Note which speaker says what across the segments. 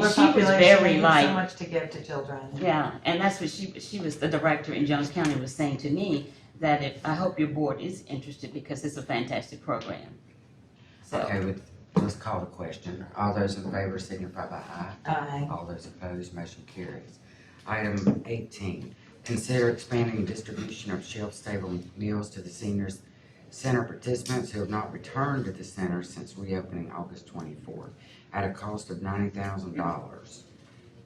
Speaker 1: was
Speaker 2: population,
Speaker 1: very
Speaker 2: you
Speaker 1: light.
Speaker 2: have so much to give to children.
Speaker 1: Yeah, and that's what she, she was, the director in Jones County was saying to me, that if, I hope your board is interested because it's a fantastic program. So,
Speaker 2: uh,
Speaker 3: Okay, with- let's call the question. All those in favor signify by aye.
Speaker 2: Aye.
Speaker 3: All those opposed, motion carries. Item eighteen, consider expanding distribution of shelf-stable meals to the seniors center participants who have not returned to the center since reopening August twenty-fourth at a cost of ninety thousand dollars.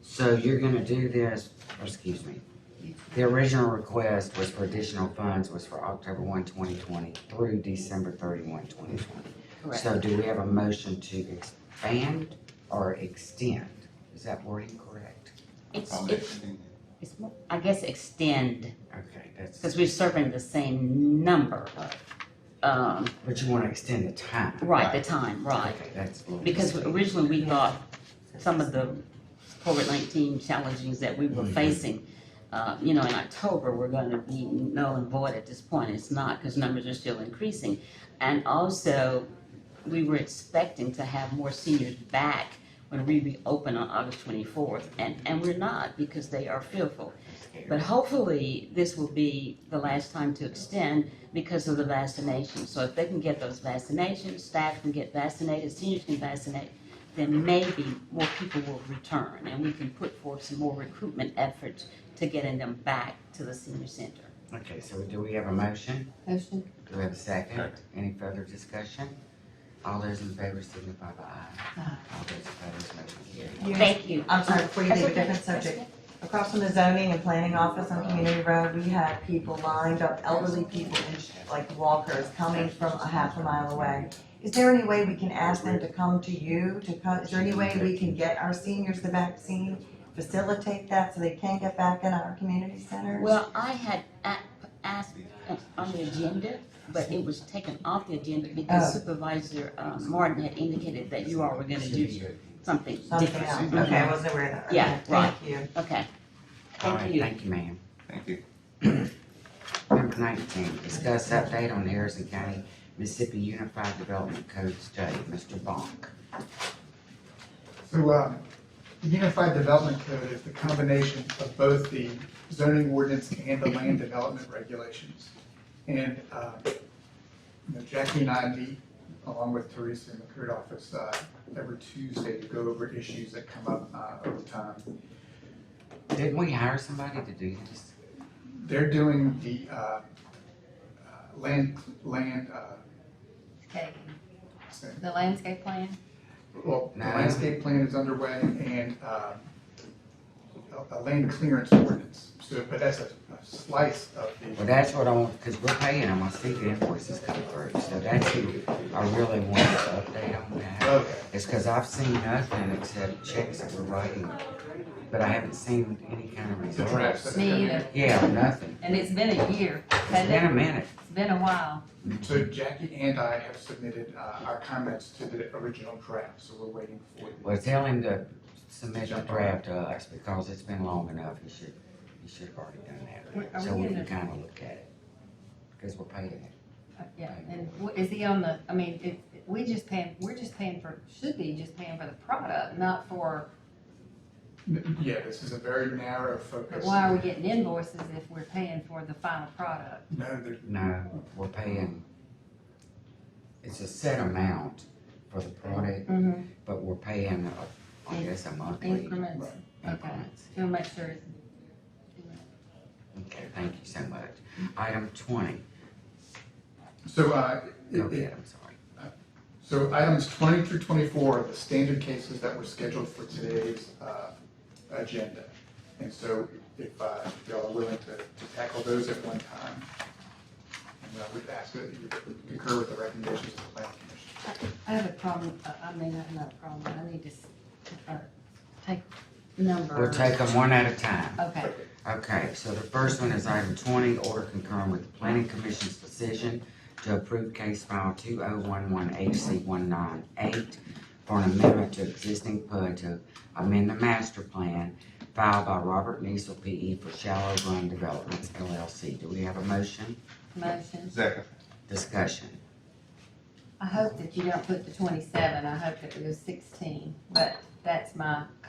Speaker 3: So you're gonna do this, or excuse me, the original request was for additional funds was for October 1, 2020, through December 31, 2020.
Speaker 1: correct.
Speaker 3: So do we have a motion to expand or extend? Is that wording correct?
Speaker 1: It's,
Speaker 4: I'll
Speaker 1: it's,
Speaker 4: extend
Speaker 1: it's, more- I guess extend,
Speaker 3: Okay,
Speaker 1: because
Speaker 3: that's,
Speaker 1: we're serving the same number of, um,
Speaker 3: but you wanna extend the time?
Speaker 1: right, the time, right.
Speaker 3: Okay, that's. a little
Speaker 1: Because
Speaker 3: confusing.
Speaker 1: originally we thought some of the COVID-19 challenges that we were
Speaker 3: Mhm.
Speaker 1: facing, uh, you know, in October, were gonna be null and void at this point. It's not, because numbers are still increasing. And also, we were expecting to have more seniors back when we reopen on August 24th, and, and we're not, because they are fearful. But hopefully, this will be the last time to extend because of the vaccination. So if they can get those vaccinations, staff can get vaccinated, seniors can vaccinate, then maybe more people will return and we can put forth some more recruitment efforts to getting them back to the senior center.
Speaker 3: Okay, so do we have a motion?
Speaker 2: Motion.
Speaker 3: Do we have a second?
Speaker 4: Second.
Speaker 3: Any further discussion? All those in favor signify by aye.
Speaker 2: Aye.
Speaker 3: All those opposed, motion carries.
Speaker 1: Thank you.
Speaker 2: I'm sorry, before you
Speaker 1: That's
Speaker 2: leave,
Speaker 1: okay.
Speaker 2: different subject. Across from the zoning and planning office on Community Road, we had people lined up, elderly people, in- like walkers, coming from a half a mile away. Is there any way we can ask them to come to you, to come, is there any way we can get our seniors the vaccine? Facilitate that so they can get back in our community centers?
Speaker 1: Well, I had a- asked uh, on the agenda, but it was taken off the agenda because
Speaker 2: Oh.
Speaker 1: Supervisor uh, Martin had indicated that you all were gonna do something
Speaker 2: Something else,
Speaker 1: different.
Speaker 2: okay, I wasn't aware of that. Okay,
Speaker 1: Yeah, right.
Speaker 2: Thank you.
Speaker 1: Okay.
Speaker 3: All
Speaker 1: Thank
Speaker 3: right,
Speaker 1: you.
Speaker 3: Thank you, ma'am.
Speaker 4: Thank you.
Speaker 3: Number nineteen, discuss update on Harrison County Mississippi Unified Development Code study. Mr. Bonk.
Speaker 5: So, uh, the Unified Development Code is the combination of both the zoning ordinance and the land development regulations. And, uh, you know, Jackie and I meet, along with Teresa in the code office, uh, every Tuesday to go over issues that come up, uh, over time.
Speaker 3: Didn't we hire somebody to do this?
Speaker 5: They're doing the, uh, uh, land, land, uh,
Speaker 6: Okay,
Speaker 5: so-
Speaker 6: the landscape plan,
Speaker 5: Well, the
Speaker 3: No.
Speaker 5: landscape plan is underway and, um, a, a land clearance ordinance, so, but that's a a slice of
Speaker 3: Well,
Speaker 5: the,
Speaker 3: that's what I want, because we're paying them, I see the invoices come through, so that's who I really wanted to update on that.
Speaker 5: okay,
Speaker 3: It's because I've seen nothing except checks that we're writing, but I haven't seen any kind of
Speaker 5: the drafts.
Speaker 3: results.
Speaker 5: that have come
Speaker 6: Me
Speaker 5: in.
Speaker 6: either.
Speaker 3: Yeah, nothing.
Speaker 6: and it's been a year,
Speaker 3: It's
Speaker 6: hasn't
Speaker 3: been a
Speaker 6: it?
Speaker 3: minute.
Speaker 6: It's been a while.
Speaker 5: So Jackie and I have submitted, uh, our comments to the original draft, so we're waiting for the
Speaker 3: Well, tell him to submit the draft to us, because it's been long enough, he should, he should have already done
Speaker 6: Are
Speaker 3: that.
Speaker 6: we
Speaker 3: So we
Speaker 6: in
Speaker 3: can
Speaker 6: the-
Speaker 3: kind of look at it, because we're paying it.
Speaker 6: Uh, Yeah, and wh- is he on the, I mean, if, we just paying, we're just paying for, should be just paying for the product, not for,
Speaker 5: Yeah, this is a very narrow
Speaker 6: but
Speaker 5: focus.
Speaker 6: why are we getting invoices if we're paying for the final product?
Speaker 5: No, there's,
Speaker 3: No, we're paying, it's a set amount for the product,
Speaker 6: Mm-hmm.
Speaker 3: But we're paying, uh, I guess, a monthly
Speaker 6: Increments,
Speaker 3: increments.
Speaker 6: to make sure it's
Speaker 3: Okay, thank you so much. Item twenty,
Speaker 5: so, uh, it,
Speaker 3: go
Speaker 5: it,
Speaker 3: ahead, I'm sorry.
Speaker 5: So items twenty through twenty-four are the standard cases that were scheduled for today's uh, agenda. And so if uh, y'all are willing to to tackle those at one time, and uh, we'd ask that you concur with the recommendations of the planning commission.
Speaker 6: I have a problem, uh, I mean, I have another problem, but I need to, s- uh, take number.
Speaker 3: We'll take them one at a time.
Speaker 6: Okay,
Speaker 3: Okay, so the first one is item twenty, order concurring with the planning commission's decision to approve case file two oh one one HC one nine eight for an amendment to existing PUD to amend the master plan filed by Robert Niesel PE for Shallow Run Developments LLC. Do we have a motion?
Speaker 6: motion.
Speaker 4: Second.
Speaker 3: Discussion.
Speaker 6: I hope that you don't put the twenty-seven, I hope that it was sixteen, but that's my